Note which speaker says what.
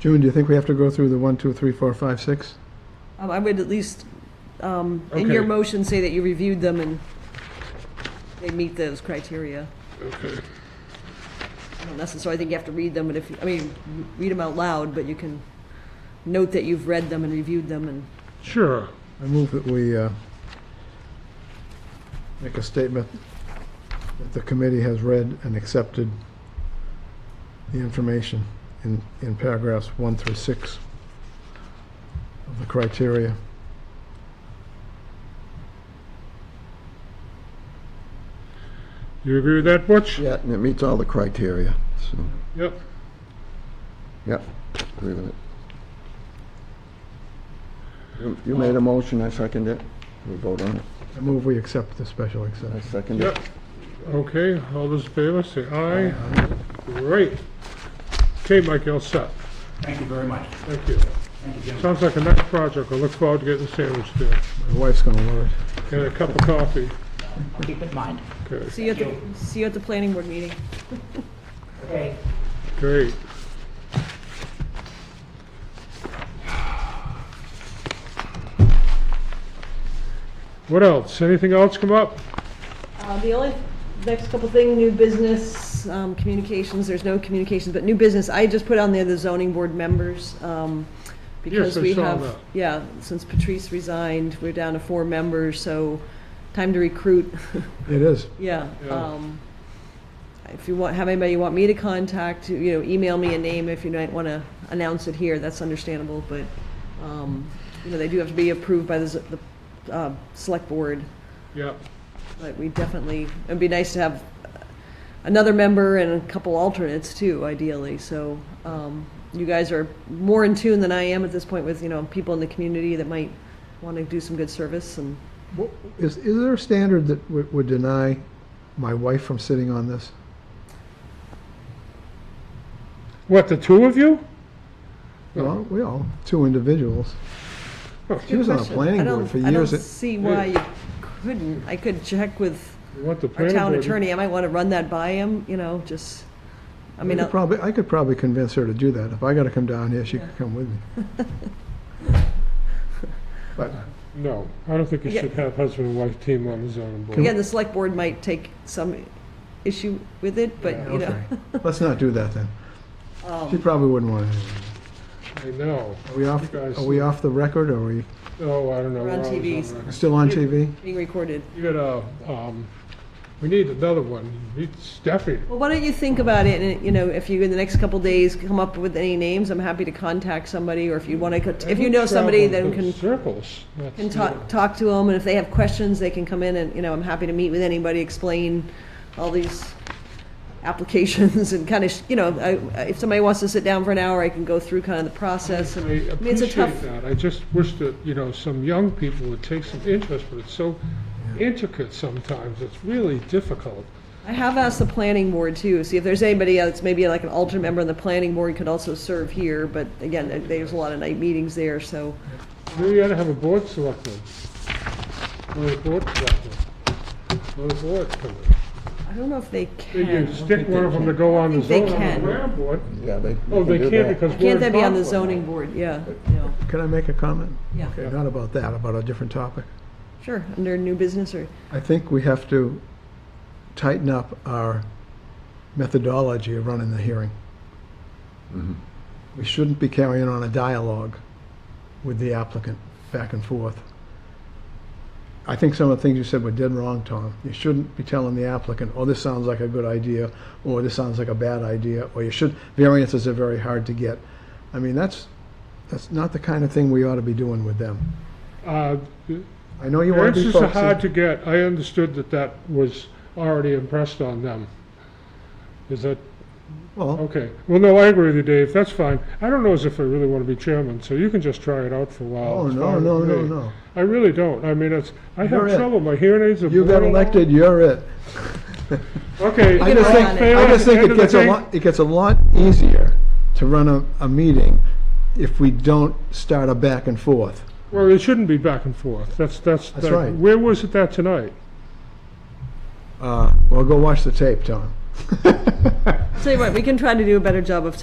Speaker 1: June, do you think we have to go through the one, two, three, four, five, six?
Speaker 2: Um, I would at least, um, in your
Speaker 3: Okay.
Speaker 2: motion, say that you reviewed them and they meet those criteria.
Speaker 3: Okay.
Speaker 2: I don't necessarily think you have to read them, but if, you- I mean, r- read them out loud, but you can note that you've read them and reviewed them and,
Speaker 3: Sure.
Speaker 1: I move that we uh, make a statement that the committee has read and accepted the information in, in paragraphs one through six of the criteria.
Speaker 3: You agree with that, Butch?
Speaker 4: Yeah, and it meets all the criteria, so,
Speaker 3: Yep.
Speaker 4: yep, agree with it. You- You made a motion, I second it. We vote on it.
Speaker 1: I move we accept the special
Speaker 4: I
Speaker 1: exception.
Speaker 4: second it.
Speaker 3: Yep. Okay, all those in favor, say aye. Great. Okay, Mike, you're all set.
Speaker 5: Thank you very much.
Speaker 3: Thank you.
Speaker 5: Thank you, gentlemen.
Speaker 3: Sounds like a nice project. I look forward to getting a sandwich there
Speaker 1: My wife's going to love it.
Speaker 3: and a cup of coffee.
Speaker 5: I'll Keep in mind.
Speaker 3: Okay,
Speaker 2: see you at
Speaker 5: Thank
Speaker 2: the, see you at the planning board meeting.
Speaker 5: Okay.
Speaker 3: great. What else? Anything else come up?
Speaker 2: Uh, The only, next couple thing, new business, um, communications, there's no communications, but new business, I just put on there the zoning board members, um, because
Speaker 3: I
Speaker 2: we
Speaker 3: saw
Speaker 2: have,
Speaker 3: that.
Speaker 2: yeah, since Patrice resigned, we're down to four members, so time to recruit,
Speaker 1: It is.
Speaker 2: yeah.
Speaker 3: Yeah.
Speaker 2: um, If you want, have anybody you want me to contact, you know, email me a name if you might want to announce it here, that's understandable, but, um, you know, they do have to be approved by the, z- the, uh, select board,
Speaker 3: Yep.
Speaker 2: but we definitely, it'd be nice to have another member and a couple alternates too, ideally. So um, you guys are more in tune than I am at this point with, you know, people in the community that might want to do some good service and,
Speaker 1: Wha- Is, is there a standard that would would deny my wife from sitting on this?
Speaker 3: What, the two of you?
Speaker 1: Well, we all, two individuals. She was on the
Speaker 2: Oh, Question.
Speaker 1: planning
Speaker 2: I don't-
Speaker 1: board for
Speaker 2: I don't
Speaker 1: years.
Speaker 2: see why you couldn't. I could check with
Speaker 3: You want the
Speaker 2: our
Speaker 3: planning
Speaker 2: town
Speaker 3: board-
Speaker 2: attorney. I might want to run that by him, you know, just, I
Speaker 1: I
Speaker 2: mean,
Speaker 1: could
Speaker 2: I'll-
Speaker 1: probably, I could probably convince her to do that. If I gotta come down here, she could come with me. But
Speaker 3: No, I don't think you
Speaker 2: Yeah.
Speaker 3: should have husband and wife team on the zoning board.
Speaker 2: again, the select board might take some issue with it, but, you know. um,
Speaker 1: Okay, let's not do that then. She probably wouldn't want to.
Speaker 3: I know.
Speaker 1: Are we off,
Speaker 3: You guys-
Speaker 1: are we off the record, or are we
Speaker 3: Oh, I don't know.
Speaker 2: We're on
Speaker 3: We're always
Speaker 2: TVs.
Speaker 3: on that.
Speaker 1: still on TV?
Speaker 2: Being recorded.
Speaker 3: You gotta, um, we need another one. Need Stephanie.
Speaker 2: Well, why don't you think about it, and, you know, if you, in the next couple days, come up with any names, I'm happy to contact somebody, or if you want to, if you know somebody, then
Speaker 3: Travel in
Speaker 2: can,
Speaker 3: Circles. That's-
Speaker 2: can talk, talk to them, and if they have questions, they can come in, and, you know, I'm happy to meet with anybody, explain all these applications, and kind of, you know, I- if somebody wants to sit down for an hour, I can go through kind of the process,
Speaker 3: I
Speaker 2: and, I mean, it's a
Speaker 3: appreciate
Speaker 2: tough,
Speaker 3: that. I just wish that, you know, some young people would take some interest, but it's so intricate sometimes. It's really difficult.
Speaker 2: I have asked the planning board too, see if there's anybody else, maybe like an alternate member on the planning board could also serve here, but again, there- there's a lot of night meetings there, so.
Speaker 3: Maybe you ought to have a board selectman. Or a board selectman. Or a board coming.
Speaker 2: I don't know if they can.
Speaker 3: You stick one of them to go on the
Speaker 2: They
Speaker 3: zoning on
Speaker 2: can.
Speaker 3: the ground board.
Speaker 4: Yeah, they.
Speaker 3: Oh, they
Speaker 4: do
Speaker 3: can't
Speaker 4: that.
Speaker 3: because we're
Speaker 2: Can't that be on
Speaker 3: in
Speaker 2: the
Speaker 3: conflict.
Speaker 2: zoning board? Yeah, no,
Speaker 1: Can I make a comment?
Speaker 2: yeah,
Speaker 1: Okay, not about that, about a different topic.
Speaker 2: sure, under new business or,
Speaker 1: I think we have to tighten up our methodology of running the hearing. We shouldn't be carrying on a dialogue with the applicant back and forth. I think some of the things you said were dead wrong, Tom. You shouldn't be telling the applicant, oh, this sounds like a good idea, or this sounds like a bad idea, or you should, variances are very hard to get. I mean, that's, that's not the kind of thing we ought to be doing with them.
Speaker 3: Uh,
Speaker 1: I know you want to be
Speaker 3: Variances are hard
Speaker 1: folksy.
Speaker 3: to get. I understood that that was already impressed on them. Is that,
Speaker 1: Well,
Speaker 3: okay. Well, no, I agree with you, Dave. That's fine. I don't know as if I really want to be chairman, so you can just try it out for a while.
Speaker 1: oh,
Speaker 3: It's
Speaker 1: no,
Speaker 3: fine
Speaker 1: no,
Speaker 3: with
Speaker 1: no,
Speaker 3: me.
Speaker 1: no.
Speaker 3: I really don't. I mean, it's, I
Speaker 1: You're
Speaker 3: have
Speaker 1: it.
Speaker 3: trouble. My hearing aids are.
Speaker 1: You got
Speaker 3: boring.
Speaker 1: elected, you're it.
Speaker 3: Okay.
Speaker 1: I just
Speaker 2: run
Speaker 1: think,
Speaker 2: on it.
Speaker 1: I just think
Speaker 3: End
Speaker 1: it
Speaker 3: of the
Speaker 1: gets a
Speaker 3: day-
Speaker 1: lot, it gets a lot easier to run a, a meeting if we don't start a back and forth.
Speaker 3: Well, it shouldn't be back and forth. That's, that's.
Speaker 1: That's
Speaker 3: that-
Speaker 1: right.
Speaker 3: Where was it that tonight?
Speaker 1: Uh, well, go watch the tape, Tom.
Speaker 2: I'll tell you what, we can try to do a better job of